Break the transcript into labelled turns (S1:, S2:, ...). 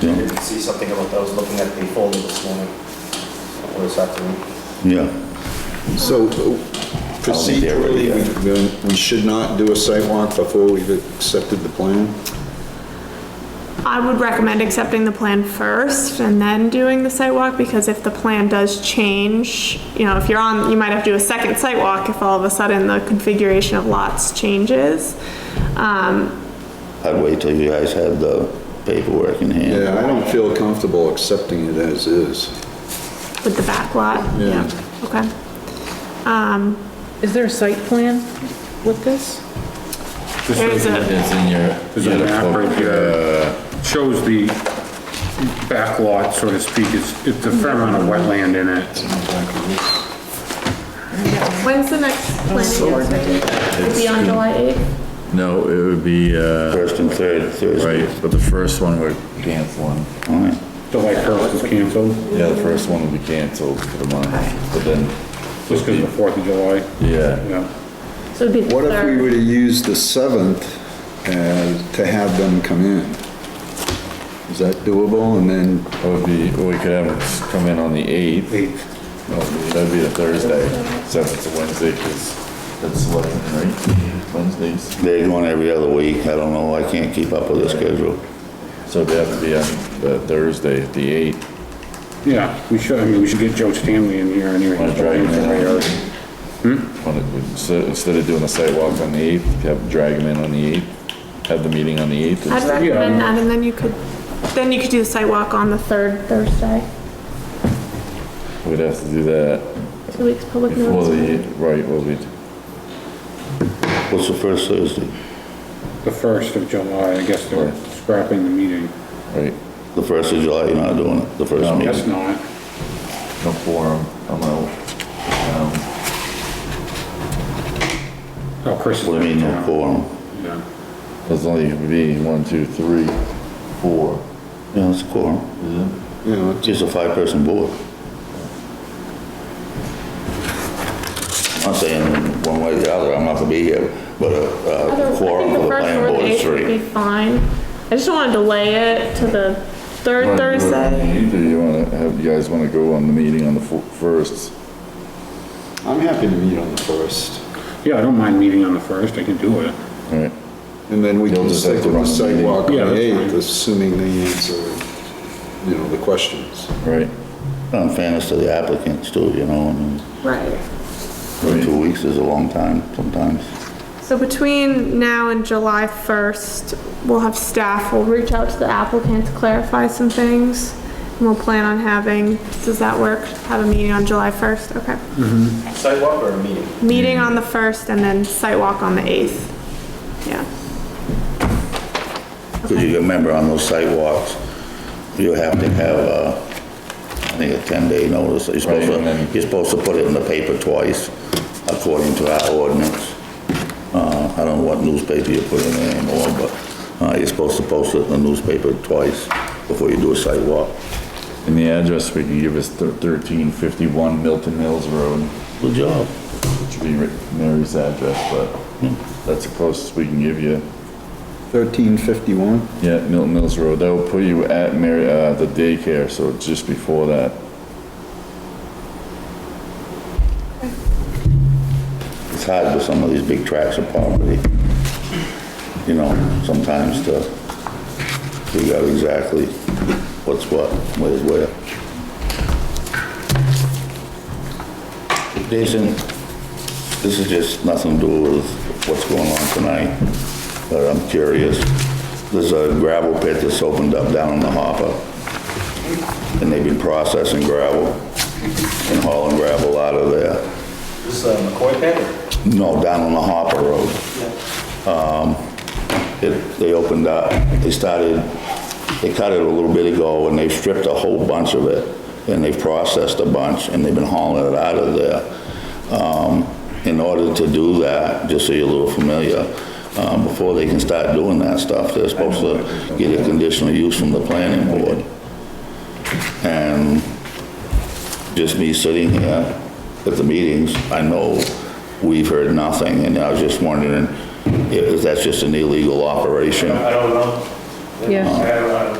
S1: Yeah.
S2: Did you see something about, I was looking at the folder this morning, or this afternoon.
S1: Yeah,
S3: So
S1: they're ready
S3: procedurally, we- we should not do a site walk before we've accepted the plan?
S4: I would recommend accepting the plan first and then doing the site walk, because if the plan does change, you know, if you're on, you might have to do a second site walk if all of a sudden the configuration of lots changes. Um,
S1: I'd wait till you guys have the paperwork in hand.
S3: Yeah, I don't feel comfortable accepting it as is.
S4: with the back lot,
S3: Yeah.
S4: yeah, okay. Um,
S5: Is there a site plan with this?
S4: there's a,
S6: It's in your.
S7: There's a map right here, shows the back lot, so to speak, it's, it's a fair amount of wetland in it.
S4: when's the next planning? It'll be on July 8th?
S6: No, it would be, uh,
S1: First and third, Thursday.
S6: right, but the first one would cancel one.
S1: All right.
S7: The light purpose is canceled,
S6: Yeah, the first one would be canceled for the month, but then,
S7: just because of the Fourth of July,
S6: yeah,
S7: yeah.
S5: So it'd be the
S3: What if we
S5: third.
S3: were to use the 7th as, to have them come in? Is that doable? And then,
S6: it would be, we could have them come in on the eighth.
S7: Eight,
S6: That'd be the Thursday, since it's a Wednesday, because that's eleven, right? Wednesdays,
S1: They're going every other week, I don't know, I can't keep up with the schedule.
S6: so they have to be on the Thursday, the eighth.
S7: yeah, we should, I mean, we should get Joe Stanley in here anyway.
S6: Want to drag him in
S7: Yeah.
S6: already? Want to- so Instead of doing the sidewalk on the eighth, have, drag him in on the eighth, have the meeting on the eighth.
S4: I'd recommend that, and then you could, then you could do the site walk on the third Thursday,
S6: We'd have to do that
S4: two weeks public
S6: before the,
S4: notice.
S6: right, well, we,
S1: What's the first Thursday?
S7: The first of July, I guess they're scrapping the meeting.
S6: right,
S1: The first of July, you're not doing it, the first
S7: Guess
S1: meeting?
S7: not.
S6: no forum, I'm out.
S7: Oh, Chris. is
S1: What do you mean, no
S7: down.
S1: quorum?
S7: Yeah.
S6: There's only gonna be one, two, three, four.
S1: Yeah, it's a quorum,
S3: you know,
S1: it's just a five-person board. I'm not saying one way or the other, I'm not gonna be here, but a- a quorum for the planning board is
S4: would be
S1: three.
S4: fine. I just don't want to delay it to the third Thursday.
S6: Either you wanna have, you guys wanna go on the meeting on the fo- first?
S3: I'm happy to meet on the 1st.
S7: Yeah, I don't mind meeting on the first, I can do it.
S6: Alright,
S3: And then we
S6: You'll
S3: can
S6: just have
S3: stick
S6: to
S3: with
S6: run
S3: the
S6: the meeting.
S3: sidewalk on
S7: Yeah,
S3: the
S7: that's
S3: 8th,
S7: fine.
S3: assuming they answer, you know, the questions.
S6: right,
S1: In fairness to the applicants too, you know, I mean,
S4: Right.
S1: two weeks is a long time sometimes.
S4: So between now and July 1st, we'll have staff, we'll reach out to the applicant to clarify some things. And we'll plan on having, does that work? Have a meeting on July 1st? Okay.
S2: Sidewalk or a meeting?
S4: Meeting on the 1st and then site walk on the 8th. Yeah.
S1: Because you remember on those sidewalks, you have to have, uh, I think a 10-day notice. You're supposed
S6: Right, and
S1: to,
S6: then-
S1: you're supposed to put it in the paper twice, according to our ordinance. Uh, I don't know what newspaper you put it in anymore, but uh, you're supposed to post it in the newspaper twice before you do a sidewalk.
S6: and the address we can give is thirteen fifty-one Milton Mills Road,
S1: Good job.
S6: which would be Ri- Mary's address, but
S1: Hmm.
S6: that's the closest we can give you.
S3: 1351?
S6: Yeah, Milton Mills Road, that will put you at Mary, uh, the daycare, so it's just before that.
S1: It's hard with some of these big tracts of property, you know, sometimes to figure out exactly what's what, where's where. Jason, this is just nothing to do with what's going on tonight, but I'm curious. There's a gravel pit that's opened up down in the hopper, and they've been processing gravel and hauling gravel out of there.
S2: This uh, McCoy pad or?
S1: No, down on the Hopper Road. Um, it- They opened up, they started, they cut it a little bit ago, and they've stripped a whole bunch of it, and they've processed a bunch, and they've been hauling it out of there. Um, In order to do that, just so you're a little familiar, um, before they can start doing that stuff, they're supposed to get a conditional use from the planning board. And just me sitting here at the meetings, I know we've heard nothing, and I was just wondering if that's just an illegal operation.
S2: I don't know.
S5: Yeah.
S2: I uh, don't know.